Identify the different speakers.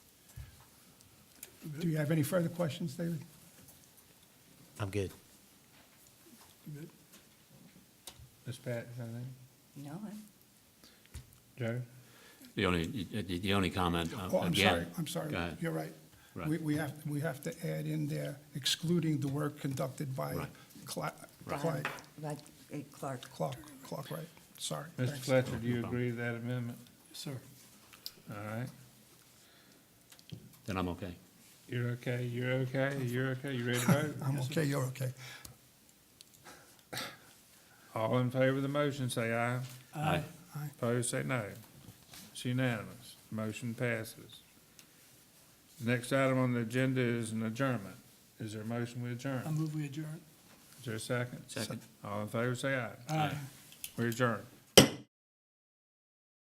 Speaker 1: Do you have any further questions, David?
Speaker 2: Uh,
Speaker 3: I'm good.
Speaker 4: Ms. Pat, is that anything?
Speaker 5: No, I'm-
Speaker 4: Joe?
Speaker 2: The only, the the only comment, uh,
Speaker 1: Oh, I'm sorry,
Speaker 2: again.
Speaker 1: I'm sorry.
Speaker 2: Go ahead.
Speaker 1: You're right.
Speaker 2: Right.
Speaker 1: We, we have, we have to add in there excluding the work conducted by
Speaker 2: Right.
Speaker 1: Cla-
Speaker 5: I'm,
Speaker 1: Clyde,
Speaker 5: like, uh, Clark.
Speaker 1: Clark, Clark, right, sorry.
Speaker 4: Mr.
Speaker 1: Thanks.
Speaker 4: Fletcher, do you agree with that amendment?
Speaker 1: Sir.
Speaker 4: All right.
Speaker 2: Then I'm okay.
Speaker 4: You're okay, you're okay, you're okay, you ready to vote?
Speaker 1: I'm okay, you're okay.
Speaker 4: All in favor of the motion, say aye.
Speaker 2: Aye.
Speaker 1: Aye.
Speaker 4: Opposed, say no. It's unanimous. Motion passes. Next item on the agenda is an adjournment. Is there a motion we adjourn?
Speaker 1: Um, move we adjourn.
Speaker 4: Is there a second?
Speaker 2: Second.
Speaker 4: All in favor, say aye.
Speaker 2: Aye.
Speaker 4: We adjourn.